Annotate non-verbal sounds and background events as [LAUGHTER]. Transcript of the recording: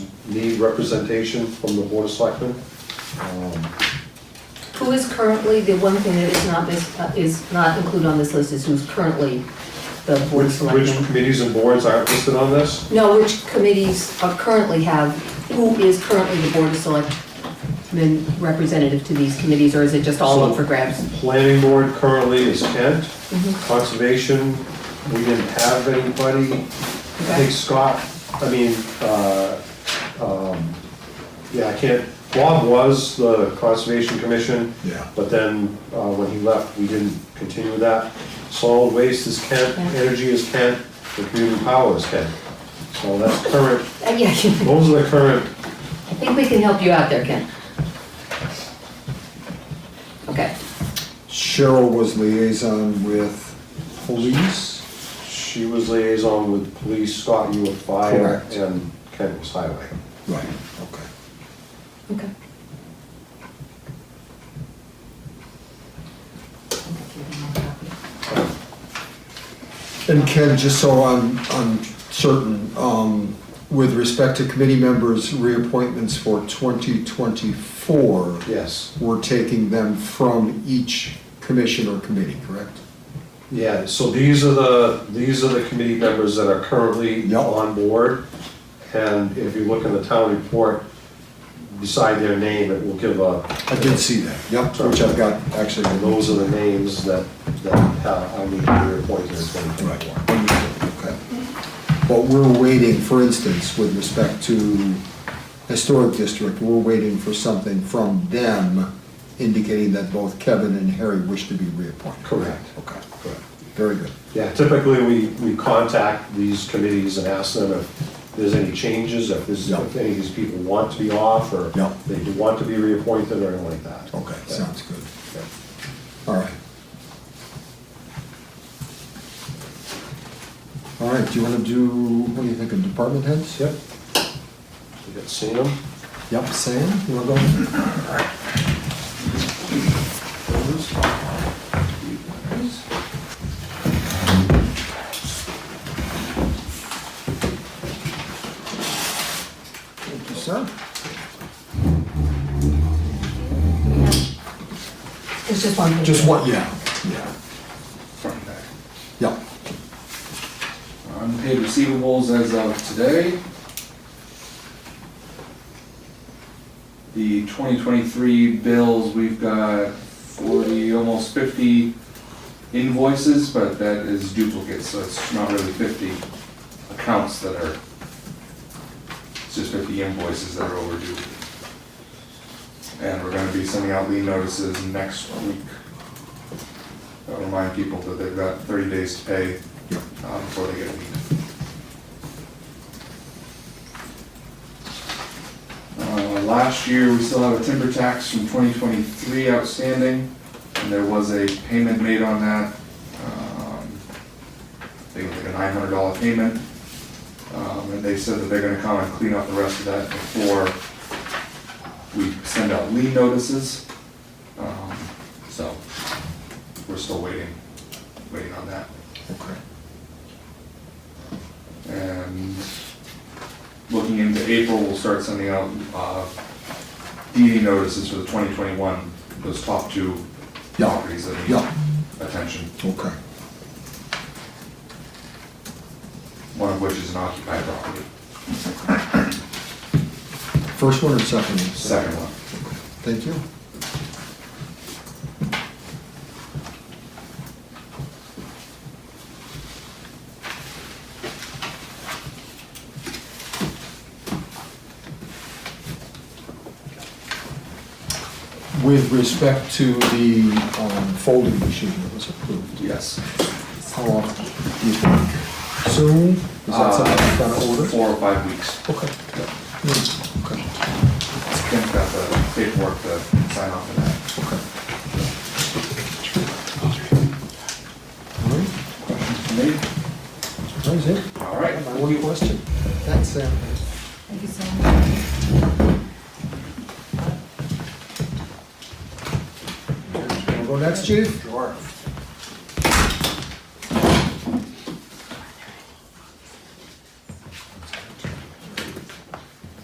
need representation from the board of selectmen. Um, Who is currently, the one thing that is not, this- uh, is not included on this list is who's currently the board of Which which selectmen? committees and boards aren't listed on this? No, which committees are currently have, who is currently the board of selectmen representative to these committees, or is it just all up for grabs? Planning board currently is Kent. Mm-hmm. Conservation, we didn't have anybody. I Okay. think Scott, I mean, uh, um, yeah, I can't, Bob was the Conservation Commission. Yeah. But then, uh, when he left, we didn't continue that. Solid waste is Kent, Yeah. energy is Kent, and community power is Kent. So that's current, Uh, Yeah, [LAUGHS] I those are the current, think we can help you out there, Ken. Okay, Cheryl was liaison with police. she was liaison with police, Scott, you were fire, Correct. and Kent was highway. Right, okay. okay. And Ken, just so I'm, I'm certain, um, with respect to committee members' reappointments for 2024, Yes, we're taking them from each commission or committee, correct? yeah, so these are the, these are the committee members that are currently Yep. on board. And if you look in the town report, beside their name, it will give a, I did see that, yep, which I've got actually. and those are the names that, that have- I need to reappoint in twenty Right, twenty-four. wonderful, okay. But we're waiting, for instance, with respect to historic district, we're waiting for something from them indicating that both Kevin and Harry wish to be reappointed. Correct. Okay, good, very good. Yeah, typically, we, we contact these committees and ask them if there's any changes, if there's, Yeah. if any of these people want to be off, or Yeah. they do want to be reappointed, or anything like that. Okay, Yeah. sounds good, Yeah. all right. All right, do you want to do, what do you think, of department heads? Yep. You got seen them? Yep, Sam, you want to go? Thank you, sir. There's just one thing. Just one, yeah, yeah, front and back. yeah. Unpaid receivables as of today. The 2023 bills, we've got 40, almost 50 invoices, but that is duplicates, so it's not really 50 accounts that are, it's just 50 invoices that are overdue. And we're gonna be sending out lien notices next week. I'll Remind people that they've got 30 days to pay uh, before they get a lien. Uh, Last year, we still have a timber tax from 2023 outstanding, and there was a payment made on that. um, I think it was like a $900 payment. Um, And they said that they're gonna come and clean up the rest of that before we send out lien notices. Um, So, we're still waiting, waiting on that. Okay. And looking into April, we'll start sending out uh, DD notices for the 2021, those top two Yeah. properties that Yeah. need attention, Okay, one of which is an occupied property, first one or second one? second one. Thank you. With respect to the um, folding machine that was approved, Yes. how often do you think? Soon? Is that something that's gonna Uh, order? Four or five weeks. Okay. Yeah, Okay, Ken's got the paperwork to sign off on that. okay. All right. Questions for me? That was it. All right. My one question. um, Thanks, Sam. Thank you so much. Wanna go next, chief? Sure.